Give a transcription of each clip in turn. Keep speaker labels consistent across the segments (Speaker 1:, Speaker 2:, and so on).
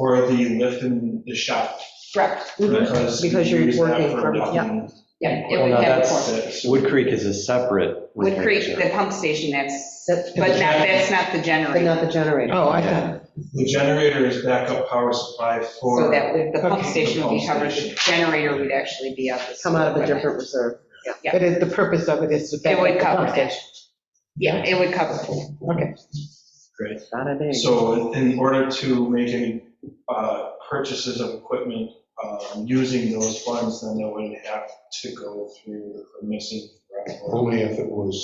Speaker 1: Or the lift in the shop.
Speaker 2: Correct.
Speaker 1: Because
Speaker 2: Mm-hmm. Because
Speaker 1: you
Speaker 2: you're
Speaker 1: use that
Speaker 2: working
Speaker 1: for
Speaker 2: from- yeah.
Speaker 1: lifting Oh,
Speaker 3: Yeah, it
Speaker 4: Well,
Speaker 3: would
Speaker 4: now
Speaker 3: have a
Speaker 4: that's-
Speaker 3: form.
Speaker 1: the-
Speaker 4: Wood Creek is a separate.
Speaker 3: Wood Creek,
Speaker 4: retention.
Speaker 3: the pump station, that's,
Speaker 2: That's-
Speaker 3: but not, that's not the
Speaker 2: But not
Speaker 3: generator.
Speaker 2: the generator.
Speaker 5: Oh, I thought,
Speaker 1: The generator is backup power supply for.
Speaker 3: So that would, the pump
Speaker 1: Okay.
Speaker 3: station would be covered, the
Speaker 1: Pump
Speaker 3: generator would actually be out.
Speaker 2: Come out of a different reserve.
Speaker 3: Yeah.
Speaker 5: but it- the purpose of it is to back
Speaker 3: It would
Speaker 5: up the
Speaker 3: cover
Speaker 5: pump
Speaker 3: that.
Speaker 5: station.
Speaker 3: Yeah, it would cover.
Speaker 5: Okay.
Speaker 2: Got it, eh?
Speaker 1: So in in order to make any uh, purchases of equipment um, using those funds, then they would have to go through the missing.
Speaker 6: Only if it was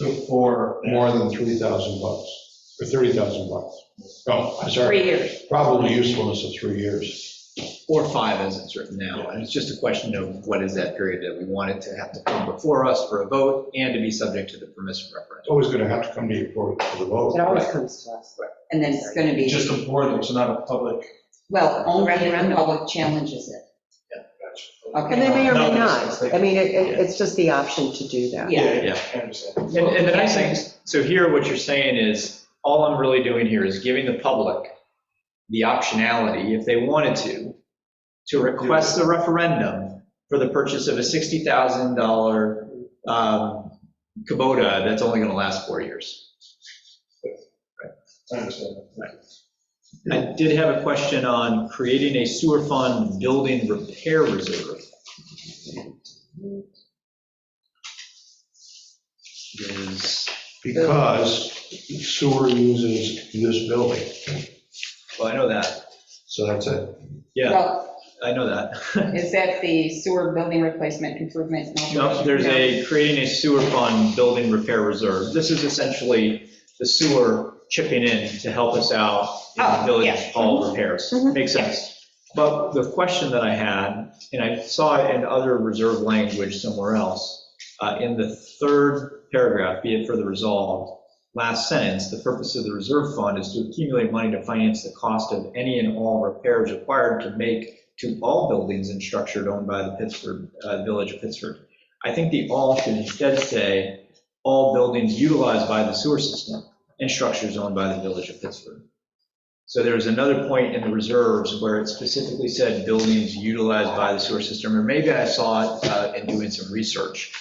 Speaker 1: Before.
Speaker 6: more than 3,000 bucks, or 30,000 bucks. No, I'm
Speaker 3: Three
Speaker 6: sorry,
Speaker 3: years.
Speaker 6: probably usefulness of three years.
Speaker 7: Or five as it's written now. And it's just a question of what is that period that we want it to have to come before us for a vote and to be subject to the permissive
Speaker 6: It's
Speaker 7: referendum.
Speaker 6: always going to have to come to you for for the vote.
Speaker 2: It always comes to us.
Speaker 3: And then it's going to be,
Speaker 1: Just a board, it's not a public.
Speaker 3: well, only if the public challenges it.
Speaker 2: And they may or may
Speaker 1: No,
Speaker 2: not.
Speaker 1: it's like-
Speaker 2: I mean, it, it- it's just the option to do that.
Speaker 3: Yeah.
Speaker 1: Yeah, I understand.
Speaker 7: And and the nice thing is, so here, what you're saying is, all I'm really doing here is giving the public the optionality, if they wanted to, to request the referendum for the purchase of a $60,000 um, Kubota that's only going to last four years.
Speaker 1: I understand.
Speaker 7: I did have a question on creating a sewer fund building repair reserve. Is,
Speaker 6: Because sewer uses this building,
Speaker 7: well, I know that,
Speaker 6: so that's it.
Speaker 7: yeah,
Speaker 3: Well,
Speaker 7: I know that.
Speaker 3: is that the sewer building replacement improvement?
Speaker 7: No, there's a, creating a sewer fund building repair reserve. This is essentially the sewer chipping in to help us out in
Speaker 3: Oh,
Speaker 7: village
Speaker 3: yeah.
Speaker 7: hall repairs.
Speaker 2: Mhm.
Speaker 7: Makes sense. But the question that I had, and I saw it in other reserve language somewhere else, uh, in the third paragraph, be it further resolved, last sentence, the purpose of the reserve fund is to accumulate money to finance the cost of any and all repairs required to make to all buildings and structures owned by the Pittsburgh, uh, Village of Pittsburgh. I think the all should instead say, all buildings utilized by the sewer system and structures owned by the Village of Pittsburgh. So there was another point in the reserves where it specifically said buildings utilized by the sewer system, or maybe I saw it uh, in doing some research.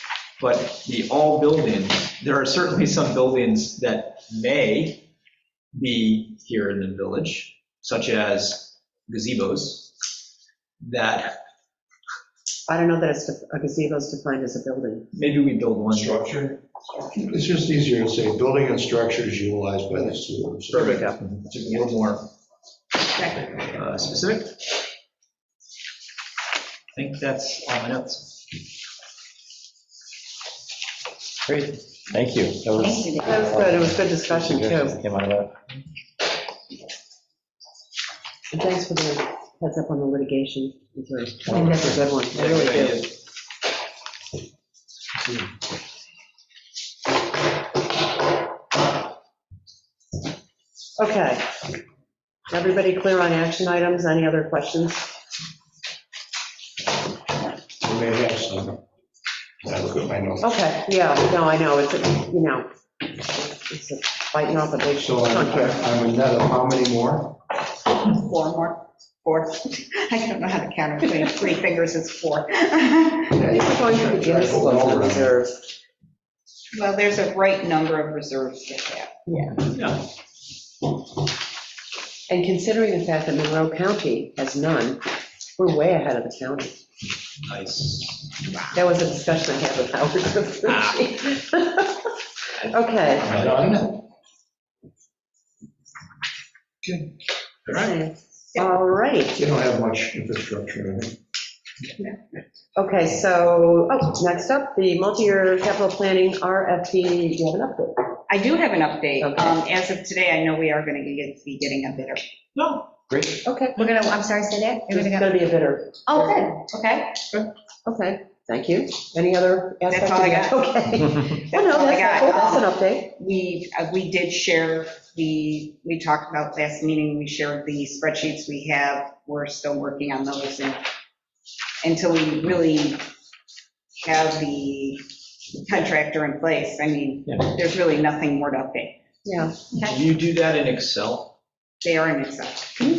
Speaker 7: But the all buildings, there are certainly some buildings that may be here in the village, such as gazebos, that
Speaker 2: I don't know that it's, a gazebo is defined as a building.
Speaker 7: maybe we build one.
Speaker 1: Structure,
Speaker 6: It's just easier to say building and structures utilized by the sewer.
Speaker 7: Perfect, just a little more uh, specific. I think that's all my notes.
Speaker 4: Great, thank you. That was.
Speaker 2: That was good. It was good discussion too.
Speaker 4: Suggestions Came out of that.
Speaker 2: And thanks for the heads up on the litigation. I think that's a good one. I really do. Okay. Everybody clear on action items? Any other questions?
Speaker 6: We may have some. I look at my notes.
Speaker 2: Okay, yeah, no, I know, it's, a- you know, it's a biting off a big
Speaker 6: So uh, I'm
Speaker 2: chunk.
Speaker 6: I'm a net of how many more?
Speaker 3: Four more, four. I don't know how to count, between three fingers is four.
Speaker 2: These are going to the Guinness Book of Reserve.
Speaker 3: Well, there's a right number of reserves to have.
Speaker 2: And considering the fact that Monroe County has none, we're way ahead of the county.
Speaker 7: Nice.
Speaker 2: That was a discussion I had with Howard. Okay.
Speaker 6: None?
Speaker 7: All right.
Speaker 2: All right.
Speaker 6: You don't have much infrastructure in it.
Speaker 2: Okay, so, oh, next up, the multi-year capital planning RFP, do you have an update?
Speaker 3: I do have an update.
Speaker 2: Okay.
Speaker 3: Um, As of today, I know we are going to get, be getting a bidder.
Speaker 7: No, great.
Speaker 2: Okay.
Speaker 8: We're gonna, I'm sorry, say that? You're
Speaker 2: There's
Speaker 8: gonna go-
Speaker 2: gonna be a bidder.
Speaker 8: Oh, good, okay.
Speaker 2: Okay, thank you. Any other aspect?
Speaker 3: That's all I got.
Speaker 2: of that? Okay. Well, no,
Speaker 3: all I
Speaker 2: that's,
Speaker 3: got. Um,
Speaker 2: that's an update.
Speaker 3: We, uh, we did share, the we talked about last meeting, we shared the spreadsheets we have. We're still working on those and until we really have the contractor in place, I mean,
Speaker 7: Yeah.
Speaker 3: there's really nothing more to update.
Speaker 2: Yeah.
Speaker 7: Do you do that in Excel?
Speaker 3: They are in Excel.
Speaker 2: Can